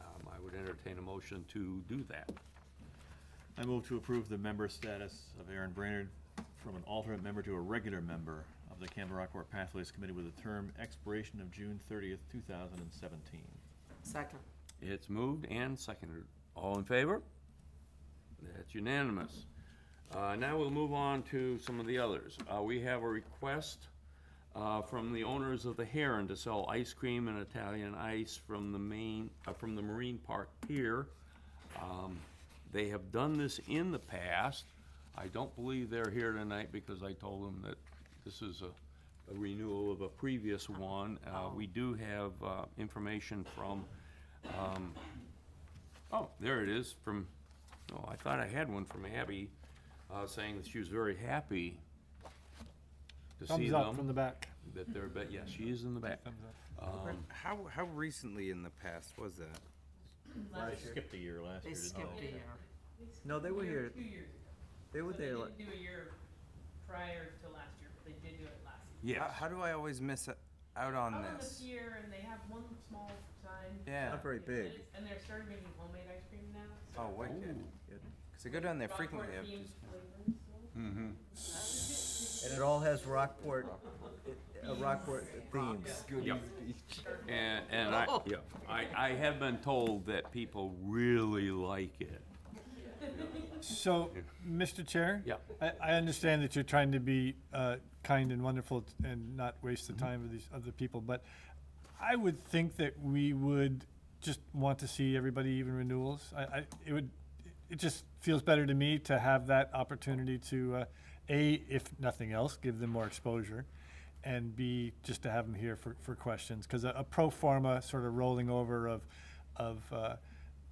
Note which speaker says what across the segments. Speaker 1: um, entertain a motion to do that.
Speaker 2: I move to approve the member status of Aaron Brainerd from an alternate member to a regular member of the Canada Rockport Pathways Committee with a term expiration of June thirtieth, two thousand and seventeen.
Speaker 3: Second.
Speaker 1: It's moved and seconded. All in favor? That's unanimous. Uh, Now we'll move on to some of the others. Uh, We have a request uh, from the owners of the Heron to sell ice cream and Italian ice from the main, uh, from the Marine Park Pier. Um, They have done this in the past. I don't believe they're here tonight because I told them that this is a a renewal of a previous one. Uh,
Speaker 4: Oh.
Speaker 1: We do have uh, information from um, Oh, there it is from, oh, I thought I had one from Abby, uh, saying that she was very happy to see
Speaker 4: Thumbs up from
Speaker 1: them,
Speaker 4: the back.
Speaker 1: that they're, but yeah, she is in the back. Um,
Speaker 5: How, how recently in the past was that?
Speaker 2: I skipped a year last
Speaker 3: They
Speaker 2: year.
Speaker 3: skipped a year.
Speaker 6: No, they were here.
Speaker 7: Two years ago.
Speaker 6: They were
Speaker 7: But they
Speaker 6: there.
Speaker 7: didn't do a year prior to last year, but they did do it last year.
Speaker 1: Yes,
Speaker 5: How, how do I always miss o- out on
Speaker 7: Out on the
Speaker 5: this?
Speaker 7: pier, and they have one small sign.
Speaker 5: Yeah.
Speaker 6: Not very
Speaker 7: And it's-
Speaker 6: big.
Speaker 7: And they're starting making homemade ice cream now. so
Speaker 5: Oh, wicked. Because I go down there frequently.
Speaker 7: Rockport
Speaker 5: I've
Speaker 7: themed
Speaker 5: just-
Speaker 7: flavors, so.
Speaker 6: And it all has Rockport, uh, Rockport themes.
Speaker 1: yeah. And, and I,
Speaker 4: Oh.
Speaker 1: yeah, I, I have been told that people really like it.
Speaker 4: So, Mr. Chair?
Speaker 1: Yeah.
Speaker 4: I, I understand that you're trying to be uh, kind and wonderful t- and not waste the time of these other people, but I would think that we would just want to see everybody even renewals. I, I, it would, it just feels better to me to have that opportunity to, uh, A, if nothing else, give them more exposure, and B, just to have them here for, for questions. Because a, a pro forma sort of rolling over of, of uh,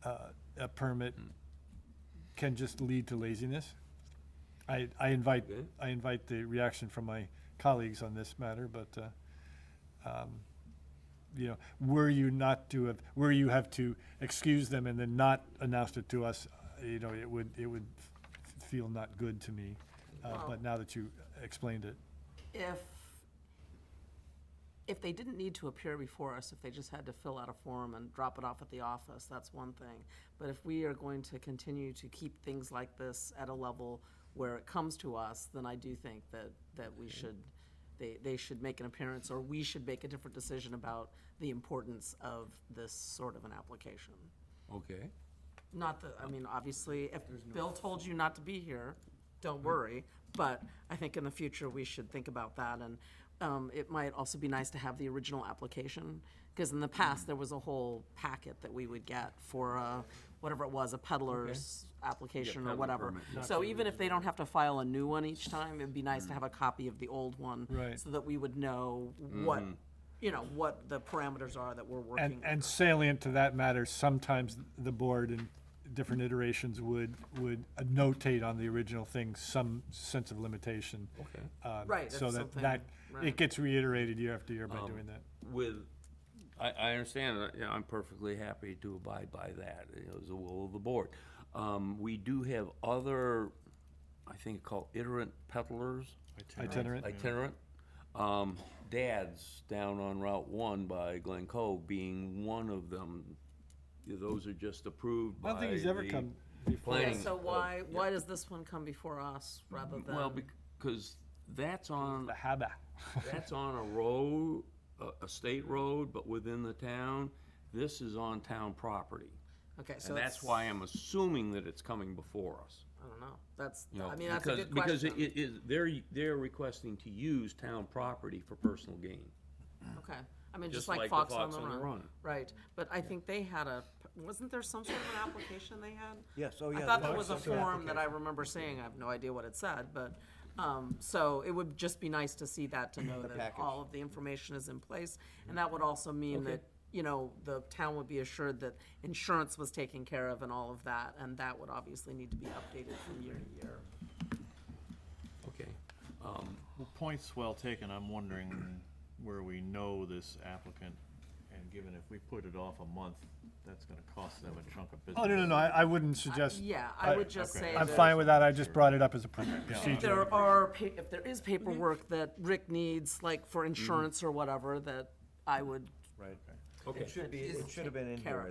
Speaker 4: uh, a permit can just lead to laziness. I, I invite,
Speaker 1: Okay.
Speaker 4: I invite the reaction from my colleagues on this matter, but, uh, um, you know, were you not to have, were you have to excuse them and then not announce it to us, uh, you know, it would, it would f- feel not good to me. Uh,
Speaker 3: Well-
Speaker 4: but now that you explained it,
Speaker 3: If, if they didn't need to appear before us, if they just had to fill out a form and drop it off at the office, that's one thing. But if we are going to continue to keep things like this at a level where it comes to us, then I do think that, that we should, they, they should make an appearance, or we should make a different decision about the importance of this sort of an application.
Speaker 1: Okay.
Speaker 3: Not that, I mean, obviously, if Bill told you not to be here, don't worry, but I think in the future, we should think about that, and um, it might also be nice to have the original application, because in the past, there was a whole packet that we would get for, uh, whatever it was, a peddler's application
Speaker 1: Yeah,
Speaker 3: or
Speaker 1: peddler
Speaker 3: whatever.
Speaker 1: permit,
Speaker 3: So even if they don't have to file a new one each time, it'd be nice to have a copy of the old one.
Speaker 4: Right.
Speaker 3: So that we would know what, you know, what the parameters are that we're working
Speaker 4: and,
Speaker 3: with.
Speaker 4: and salient to that matter, sometimes the board in different iterations would, would notate on the original thing some sense of limitation.
Speaker 1: Okay.
Speaker 4: Um,
Speaker 3: Right, if
Speaker 4: So that,
Speaker 3: something-
Speaker 4: that,
Speaker 3: right.
Speaker 4: it gets reiterated year after year by
Speaker 1: Um,
Speaker 4: doing that.
Speaker 1: With, I, I understand, uh, yeah, I'm perfectly happy to abide by that, it was the will of the board. Um, we do have other, I think called iterant peddlers.
Speaker 4: Itinerant.
Speaker 1: itinerant. Um, Dad's down on Route One by Glen Cove being one of them. Those are just approved
Speaker 4: I
Speaker 1: by
Speaker 4: don't think he's ever
Speaker 1: the
Speaker 4: come before.
Speaker 3: Yeah,
Speaker 1: planning.
Speaker 3: so why, why does this one come before us rather than?
Speaker 1: Mm, Well, because that's on,
Speaker 4: The Haba.
Speaker 1: that's on a road, a, a state road, but within the town. This is on town property.
Speaker 3: Okay, so
Speaker 1: And that's
Speaker 3: it's-
Speaker 1: why I'm assuming that it's coming before us.
Speaker 3: I don't know, that's,
Speaker 1: you know,
Speaker 3: I mean, that's a
Speaker 1: because-
Speaker 3: good question.
Speaker 1: Because it- it is, they're, they're requesting to use town property for personal gain.
Speaker 3: Okay, I mean,
Speaker 1: Just
Speaker 3: just like
Speaker 1: like the
Speaker 3: Fox on
Speaker 1: Fox
Speaker 3: the
Speaker 1: on the
Speaker 3: Run.
Speaker 1: Run.
Speaker 3: Right, but I think they had a, wasn't there some sort of an application they had?
Speaker 6: Yes, oh,
Speaker 3: I
Speaker 6: yeah,
Speaker 3: thought
Speaker 6: there
Speaker 3: there
Speaker 6: was
Speaker 3: was a
Speaker 6: some sort of
Speaker 3: form that I remember seeing, I have no idea what it said, but, um, so it would just be nice to see that, to know that
Speaker 6: package.
Speaker 3: all of the information is in place. And that would also mean that, you know, the town would be assured that insurance was taken care of and all of that, and that would obviously need to be updated from year to year.
Speaker 1: Okay.
Speaker 2: Well, points well taken. I'm wondering where we know this applicant, and given if we put it off a month, that's gonna cost them a chunk of business.
Speaker 4: Oh, no, no, no, I, I wouldn't suggest.
Speaker 3: Yeah, I would just
Speaker 2: okay.
Speaker 3: say
Speaker 4: I'm
Speaker 3: that-
Speaker 4: fine with that, I just brought it up as a procedure.
Speaker 3: If there are, pa- if there is paperwork that Rick needs, like for insurance or whatever, that I would
Speaker 6: It should be, it should have been in
Speaker 3: Carrot.
Speaker 6: here